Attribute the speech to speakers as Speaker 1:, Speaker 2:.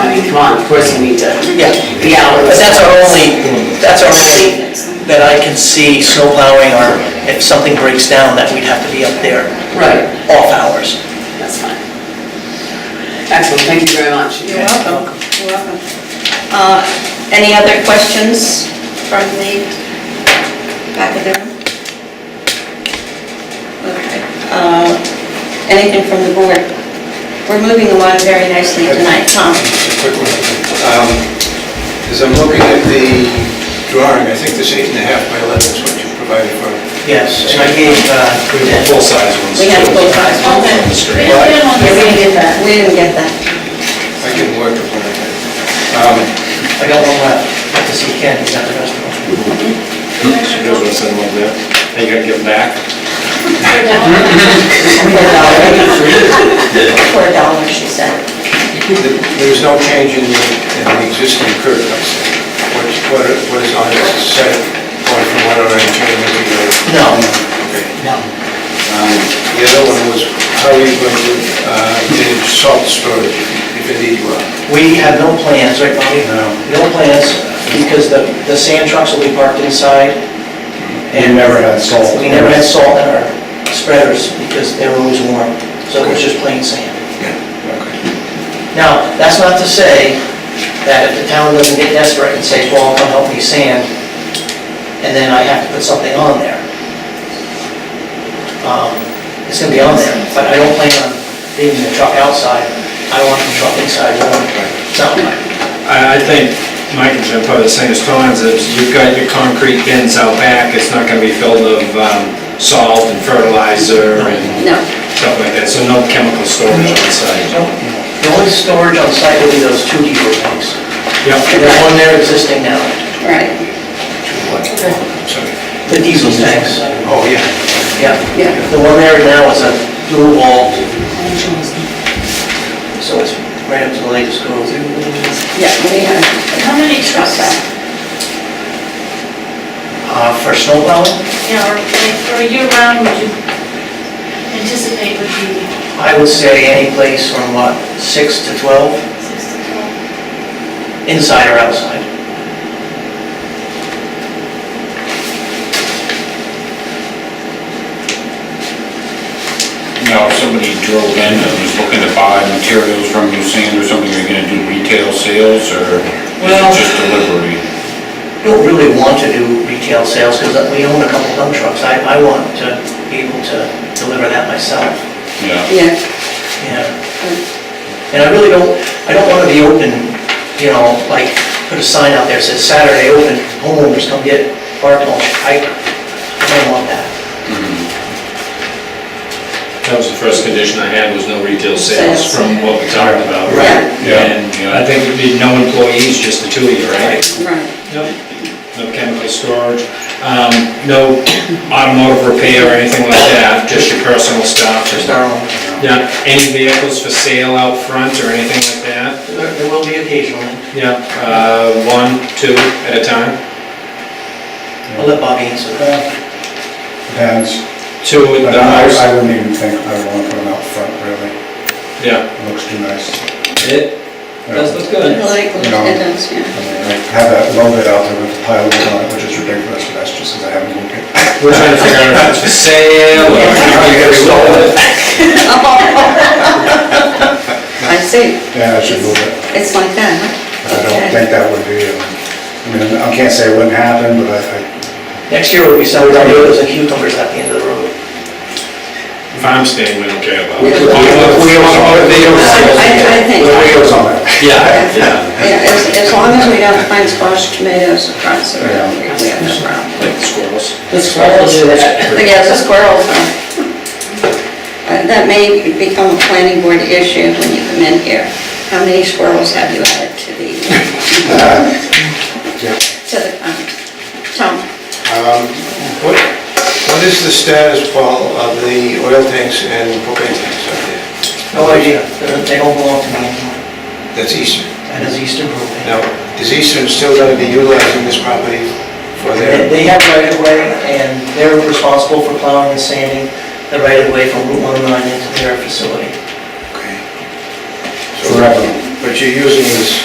Speaker 1: on, of course you need to
Speaker 2: Yeah,
Speaker 1: be out with
Speaker 2: but
Speaker 1: it.
Speaker 2: that's our only, that's our only that I can see snow plowing or if something breaks down, that we'd have to be up there
Speaker 1: Right,
Speaker 2: off hours.
Speaker 1: that's fine. Excellent, thank you very much.
Speaker 3: You're welcome. You're welcome. Uh, Any other questions from the back of the room? Okay. Uh, Anything from the board? We're moving along very nicely tonight, Tom.
Speaker 4: Just a quick one. Um, As I'm looking at the drawing, I think this eight and a half by 11 is what you provided for.
Speaker 2: Yes, and I gave, uh,
Speaker 5: We have full-size ones.
Speaker 3: We have full size.
Speaker 5: On the
Speaker 6: We
Speaker 5: street.
Speaker 6: don't do it on the
Speaker 3: Yeah, we didn't
Speaker 6: same.
Speaker 3: get that. We didn't get that.
Speaker 4: I can work with one of them. Um,
Speaker 2: I got one left, Got to see Ken, he's at the restaurant.
Speaker 5: She knows what I'm saying over there. And you gotta give back.
Speaker 3: For a dollar. For a dollar, she said.
Speaker 4: th- There's no change in the in the existing curb cuts. What what are- what is on this set going from one orange to the other?
Speaker 2: No,
Speaker 4: Okay.
Speaker 2: no.
Speaker 4: Um, The other one was, how are you going to uh, manage salt storage if indeed you are?
Speaker 2: We have no plans, right, Bobby?
Speaker 5: No.
Speaker 2: No plans, because the, the sand trucks will be parked inside.
Speaker 5: We never had salt.
Speaker 7: Oh.
Speaker 2: We never had salt in our spreaders, because they were always warm, so it was just plain sand.
Speaker 4: Okay.
Speaker 2: Now, that's not to say that if the town doesn't get desperate and say, Paul, come help me sand, and then I have to put something on there. Um, It's gonna be on there, but I don't plan on leaving the truck outside. I want the truck inside warm. Something
Speaker 5: I, I think Mike and Jim probably the same as Tom's, is you've got your concrete bins out back, it's not gonna be filled of um, salt and fertilizer and
Speaker 3: No.
Speaker 5: stuff like that, so no chemical storage on site.
Speaker 2: The only storage on site will be those two diesel tanks.
Speaker 5: Yep.
Speaker 2: There's one there existing now,
Speaker 3: Right,
Speaker 4: Sorry.
Speaker 2: the diesel tanks.
Speaker 4: Oh, yeah.
Speaker 2: Yeah,
Speaker 3: yeah.
Speaker 2: the one there now is a dual wall. So it's right up to the latest code.
Speaker 3: Yeah, we have,
Speaker 6: How many trucks,
Speaker 2: Uh, for snow plowing?
Speaker 6: you know, or like, for a year round, would you anticipate would be
Speaker 2: I would say any place from what, 6 to 12,
Speaker 6: six to twelve?
Speaker 2: inside or outside.
Speaker 8: Now, if somebody drove in and was looking to buy materials from you, sand or something, are you gonna do retail sales, or is
Speaker 2: Well-
Speaker 8: it just delivery?
Speaker 2: Don't really want to do retail sales because we own a couple dump trucks. I, I want to be able to deliver that myself,
Speaker 8: Yeah.
Speaker 3: yeah.
Speaker 2: yeah. And I really don't, I don't want to be open, you know, like, put a sign out there that says Saturday open, homeowners come get bark mulch. I I don't want that.
Speaker 5: That was the first condition I had, was no retail sales
Speaker 3: Sales.
Speaker 5: from what we talked about.
Speaker 3: Right.
Speaker 5: And, you know, I think it'd be no employees, just the two of you, right?
Speaker 3: Right,
Speaker 5: No, no chemical storage, um, no automotive repair or anything like that, just your personal stuff.
Speaker 2: Just our own.
Speaker 5: Yeah, any vehicles for sale out front or anything like that?
Speaker 2: There there will be occasionally.
Speaker 5: Yeah, uh, one, two at a time?
Speaker 2: I'll let Bobby answer that.
Speaker 7: Depends,
Speaker 5: Two at the
Speaker 7: but Uh, I
Speaker 5: most?
Speaker 7: I wouldn't even think I would want to put them out front, really.
Speaker 5: Yeah.
Speaker 7: It looks too nice.
Speaker 5: It
Speaker 7: You know,
Speaker 5: does look good.
Speaker 3: political,
Speaker 7: No.
Speaker 3: it does, yeah.
Speaker 7: I mean, I have that low bit out there with the pile of wood on it, which is ridiculous, but that's just because I haven't moved it.
Speaker 5: We're trying to figure out if it's for sale or...
Speaker 3: I see,
Speaker 7: Yeah, I should move it.
Speaker 3: it's like that, huh?
Speaker 7: I don't
Speaker 3: Okay.
Speaker 7: think that would be, um, I mean, I can't say it wouldn't happen, but I, I-
Speaker 2: Next year, we'll be selling tomatoes and cucumbers at the end of the road.
Speaker 5: Farm stand, we don't care about.
Speaker 7: We- we-
Speaker 5: Automotive vehicles.
Speaker 3: I, I think,
Speaker 7: the
Speaker 3: yeah,
Speaker 7: video's on it.
Speaker 5: Yeah, yeah.
Speaker 3: as, as long as we don't find squash tomatoes across the road, we we have no problem.
Speaker 5: Like squirrels.
Speaker 2: The squirrels do that.
Speaker 3: But yeah, the squirrels are, uh, that may become a planning board issue when you come in here. How many squirrels have you added to the,
Speaker 7: Yeah.
Speaker 3: to the, um, Tom?
Speaker 4: Um, What, what is the status, Paul, of the oil tanks and propane tanks out there?
Speaker 2: No idea, They're- they don't belong to me anymore.
Speaker 4: That's Eastern.
Speaker 2: That is Eastern propane.
Speaker 4: Now, is Eastern still going to be utilizing this property for
Speaker 2: They
Speaker 4: their,
Speaker 2: they have right of way, and they're responsible for plowing and sanding the right of way from Route 109 into their facility.
Speaker 4: okay. So,
Speaker 7: Forever.
Speaker 4: But you're using this